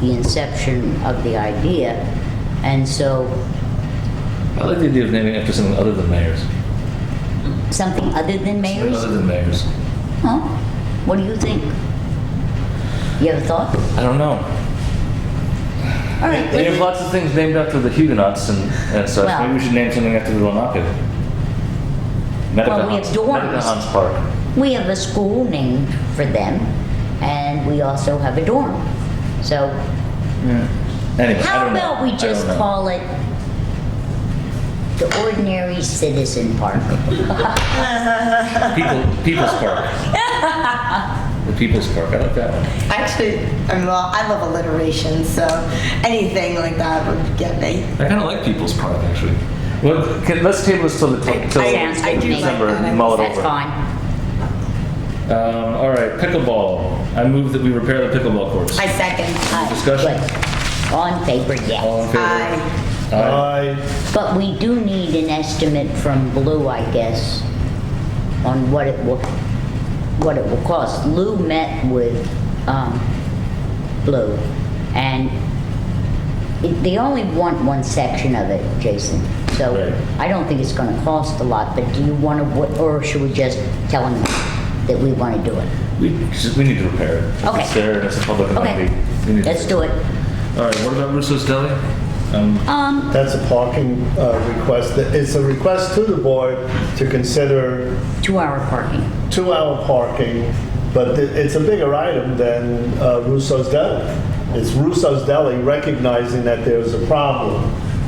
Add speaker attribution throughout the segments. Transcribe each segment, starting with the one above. Speaker 1: the inception of the idea. And so
Speaker 2: I like the idea of naming it after something other than mayors.
Speaker 1: something other than
Speaker 2: Something
Speaker 1: mayors?
Speaker 2: Other than mayors.
Speaker 1: Huh? What do you think? You have a thought?
Speaker 2: I don't know.
Speaker 1: All right.
Speaker 2: We have lots of things named after the Huguenots and, and such.
Speaker 1: Well-
Speaker 2: Maybe we should name something after the Lenape.
Speaker 1: Well, we have dorms.
Speaker 2: Hans Park.
Speaker 1: We have a school named for them, and we also have a dorm. So
Speaker 2: Anyway, I
Speaker 1: how
Speaker 2: don't know.
Speaker 1: about we
Speaker 2: I
Speaker 1: just
Speaker 2: don't know.
Speaker 1: call it the Ordinary Citizen Park?
Speaker 2: People, People's Park. the People's Park. I like that one.
Speaker 3: Actually, I mean, well, I love alliteration, so anything like that would get me.
Speaker 2: I kind of like People's Park actually. Well, can, let's table this till the t- till
Speaker 1: Sounds good to me.
Speaker 2: December and mull it
Speaker 1: That's
Speaker 2: over.
Speaker 1: fine.
Speaker 2: Um, all right, pickleball. I move that we repair the pickleball courts.
Speaker 3: I second.
Speaker 1: Aye,
Speaker 2: Discussion?
Speaker 1: good. On paper,
Speaker 2: All
Speaker 1: yes.
Speaker 2: in favor?
Speaker 3: Aye.
Speaker 2: Aye.
Speaker 4: Aye.
Speaker 1: But we do need an estimate from Blue, I guess, on what it will, what it will cost. Lou met with, um, Blue, and it- they only want one section of it, Jason. So
Speaker 2: Right.
Speaker 1: I don't think it's gonna cost a lot, but do you wanna, wa- or should we just tell them that we wanna do it?
Speaker 2: We, just- we need to repair it.
Speaker 1: Okay.
Speaker 2: It's there and it's a public
Speaker 1: Okay,
Speaker 2: entity. We need to
Speaker 1: let's do it.
Speaker 2: All right, what about Russo's Deli? Um,
Speaker 1: Um,
Speaker 4: That's a parking uh, request. It's a request to the board to consider
Speaker 1: Two-hour parking.
Speaker 4: two-hour parking, but th- it's a bigger item than uh, Russo's Deli. It's Russo's Deli recognizing that there's a problem,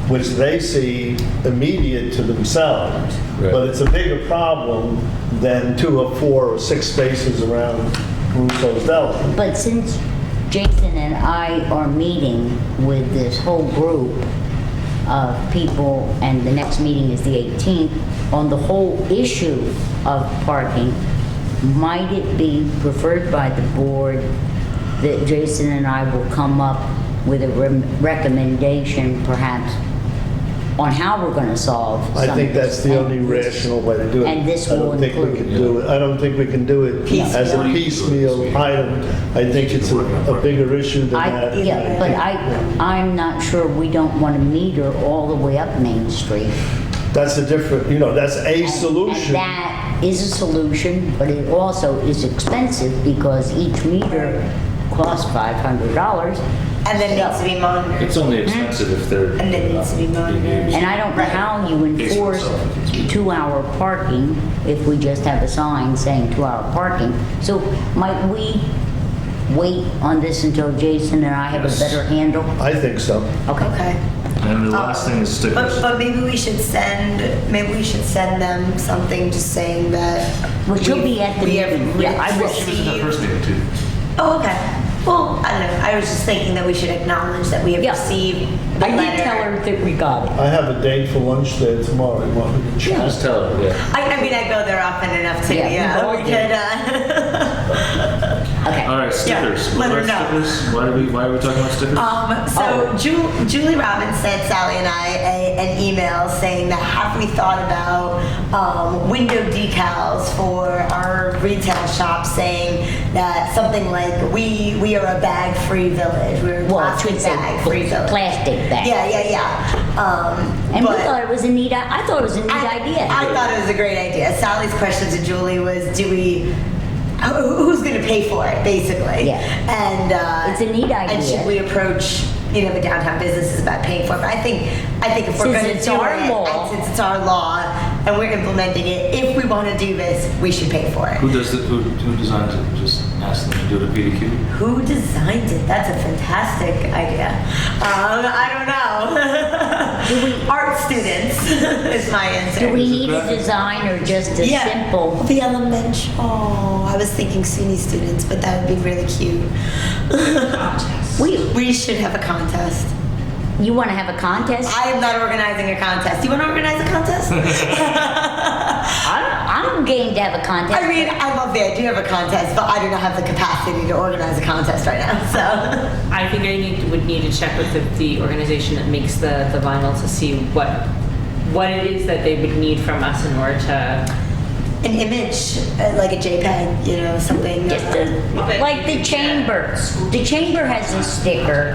Speaker 4: which they see immediate to themselves.
Speaker 2: Right.
Speaker 4: But it's a bigger problem than two or four or six spaces around Russo's Deli.
Speaker 1: But since Jason and I are meeting with this whole group of people, and the next meeting is the 18th, on the whole issue of parking, might it be preferred by the board that Jason and I will come up with a rem- recommendation perhaps on how we're gonna solve some
Speaker 4: I think
Speaker 1: of this?
Speaker 4: that's the only
Speaker 1: And-
Speaker 4: rational way to do it.
Speaker 1: And this
Speaker 4: I don't
Speaker 1: will
Speaker 4: think we
Speaker 1: include-
Speaker 4: can do it- I don't think we can do it as a
Speaker 3: Piecemeal.
Speaker 4: piecemeal item. I think it's a a bigger issue than
Speaker 1: I,
Speaker 4: that.
Speaker 1: yeah, but I, I'm not sure we don't want to meter all the way up Main Street.
Speaker 4: That's a different, you know, that's a
Speaker 1: And-
Speaker 4: solution.
Speaker 1: And that is a solution, but it also is expensive because each meter costs five hundred dollars.
Speaker 3: And then needs to be monitored.
Speaker 2: it's only expensive if they're.
Speaker 3: And it needs to be monitored.
Speaker 1: And I don't know how you enforce two-hour parking if we just have a sign saying two-hour parking. So might we wait on this until Jason and I have a
Speaker 2: Yes.
Speaker 1: better handle?
Speaker 4: I think so.
Speaker 1: Okay.
Speaker 3: Okay.
Speaker 2: And Uh, the last thing is
Speaker 3: But,
Speaker 2: stickers.
Speaker 3: but maybe we should send, maybe we should send them something just saying that.
Speaker 1: Well, she'll
Speaker 3: we-
Speaker 1: be at the
Speaker 3: we have
Speaker 1: meeting. Yeah, I will.
Speaker 2: She was in the
Speaker 3: received-
Speaker 2: first meeting too.
Speaker 3: Oh, okay. Well, I don't know. I was just thinking that we should acknowledge that we have
Speaker 1: Yeah.
Speaker 3: received the
Speaker 1: I did
Speaker 3: letter.
Speaker 1: tell her that we got it.
Speaker 4: I have a date for lunch there tomorrow. You want me to check?
Speaker 2: Just tell her, yeah.
Speaker 3: I, I mean, I go there often enough too.
Speaker 1: Yeah,
Speaker 3: Yeah,
Speaker 1: we both
Speaker 3: we
Speaker 1: do.
Speaker 3: could. Uh,
Speaker 1: Okay.
Speaker 2: All right, stickers.
Speaker 3: Yeah, let
Speaker 2: What
Speaker 3: her
Speaker 2: about
Speaker 3: know.
Speaker 2: stickers? Why are we, why are we talking about stickers?
Speaker 3: Um, so
Speaker 1: Oh.
Speaker 3: Ju- Julie Robbins sent Sally and I a, an email saying that have we thought about um, window decals for our retail shop saying that something like we we are a bag free village. We're a
Speaker 1: Well, it
Speaker 3: plastic
Speaker 1: should say
Speaker 3: bag free village.
Speaker 1: plastic bag.
Speaker 3: Yeah, yeah, yeah. Um,
Speaker 1: And we
Speaker 3: but-
Speaker 1: thought it was a neat, I I thought it was a neat
Speaker 3: I,
Speaker 1: idea.
Speaker 3: I thought it was a great idea. Sally's question to Julie was, "Do we? who- Who's going to pay for it?" Basically,
Speaker 1: Yeah.
Speaker 3: And uh,
Speaker 1: It's a neat
Speaker 3: And
Speaker 1: idea.
Speaker 3: should we approach you know the downtown businesses about paying for it? But I think I think if we're
Speaker 1: Since
Speaker 3: going to
Speaker 1: it's
Speaker 3: do
Speaker 1: our
Speaker 3: it,
Speaker 1: law.
Speaker 3: and since it's our law and we're implementing it, if we want to do this, we should pay for it.
Speaker 5: Who does the, who, who designs it? Just ask them to do it at PDQ?
Speaker 3: Who designed it? That's a fantastic idea. Um, I don't know. Art students is my answer.
Speaker 1: Do we need a
Speaker 5: graphic?
Speaker 1: design or just a simple?
Speaker 3: The elementary. Oh, I was thinking SUNY students, but that would be really cute.
Speaker 1: We,
Speaker 3: we should have a contest.
Speaker 1: you want to have a contest?
Speaker 3: I am not organizing a contest. You want to organize a contest?
Speaker 1: I'm, I'm game to have a
Speaker 3: I
Speaker 1: contest.
Speaker 3: mean, I love the idea of a contest, but I do not have the capacity to organize a contest right now. So,
Speaker 6: I think I need, would need to check with the, the organization that makes the, the vinyl to see what, what it is that they would need from us in order to.
Speaker 3: an image, uh, like a JPEG, you know, something. Uh,
Speaker 1: Just a, like the chamber. The chamber has a sticker